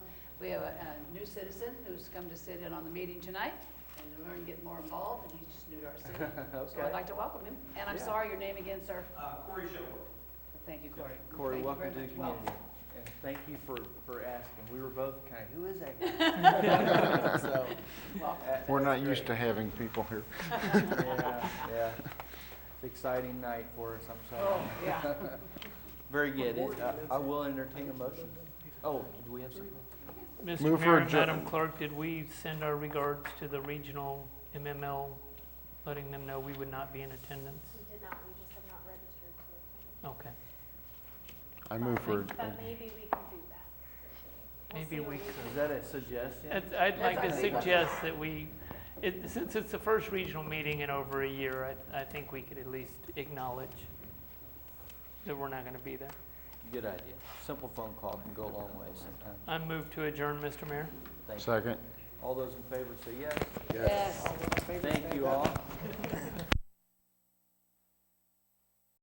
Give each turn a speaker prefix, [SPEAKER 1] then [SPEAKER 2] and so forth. [SPEAKER 1] We have a, a new citizen who's come to sit in on the meeting tonight and learn, get more involved, and he's just new to our city. So I'd
[SPEAKER 2] Okay.
[SPEAKER 1] like to welcome him. And I'm
[SPEAKER 2] Yeah.
[SPEAKER 1] sorry, your name again, sir?
[SPEAKER 3] Uh, Corey Shuttleworth.
[SPEAKER 1] Thank you, Corey.
[SPEAKER 2] Corey,
[SPEAKER 1] Thank you
[SPEAKER 2] welcome
[SPEAKER 1] very
[SPEAKER 2] to
[SPEAKER 1] much.
[SPEAKER 2] the
[SPEAKER 1] Well,
[SPEAKER 2] community. And thank you for, for asking. We were both kind of, who is that guy? So,
[SPEAKER 1] Welcome.
[SPEAKER 2] that-
[SPEAKER 4] We're
[SPEAKER 2] that's
[SPEAKER 4] not used to
[SPEAKER 2] great.
[SPEAKER 4] having people here.
[SPEAKER 2] Yeah, yeah. It's an exciting night for us, I'm
[SPEAKER 1] Oh,
[SPEAKER 2] sorry.
[SPEAKER 1] yeah.
[SPEAKER 2] Very good. It- uh, I I will entertain a motion. Oh, do we have something?
[SPEAKER 5] Mr.
[SPEAKER 4] Move for
[SPEAKER 5] Mayor,
[SPEAKER 4] adjour-
[SPEAKER 5] and Madam Clerk, did we send our regards to the regional MML, letting them know we would not be in attendance?
[SPEAKER 6] We did not, we just have not registered to.
[SPEAKER 5] Okay.
[SPEAKER 4] I move for,
[SPEAKER 6] But maybe we can do that. We'll
[SPEAKER 5] Maybe
[SPEAKER 6] see what
[SPEAKER 5] we
[SPEAKER 6] can
[SPEAKER 2] Is that a suggestion?
[SPEAKER 5] I'd- I'd like to
[SPEAKER 1] That's okay.
[SPEAKER 5] suggest that we, it- since it's the first regional meeting in over a year, I I think we could at least acknowledge that we're not going to be there.
[SPEAKER 2] Good idea. Simple phone call can go a long way sometimes.
[SPEAKER 5] I move to adjourn, Mr. Mayor.
[SPEAKER 2] Thank you.
[SPEAKER 4] second.
[SPEAKER 2] All those in favor say yes.
[SPEAKER 1] Yes.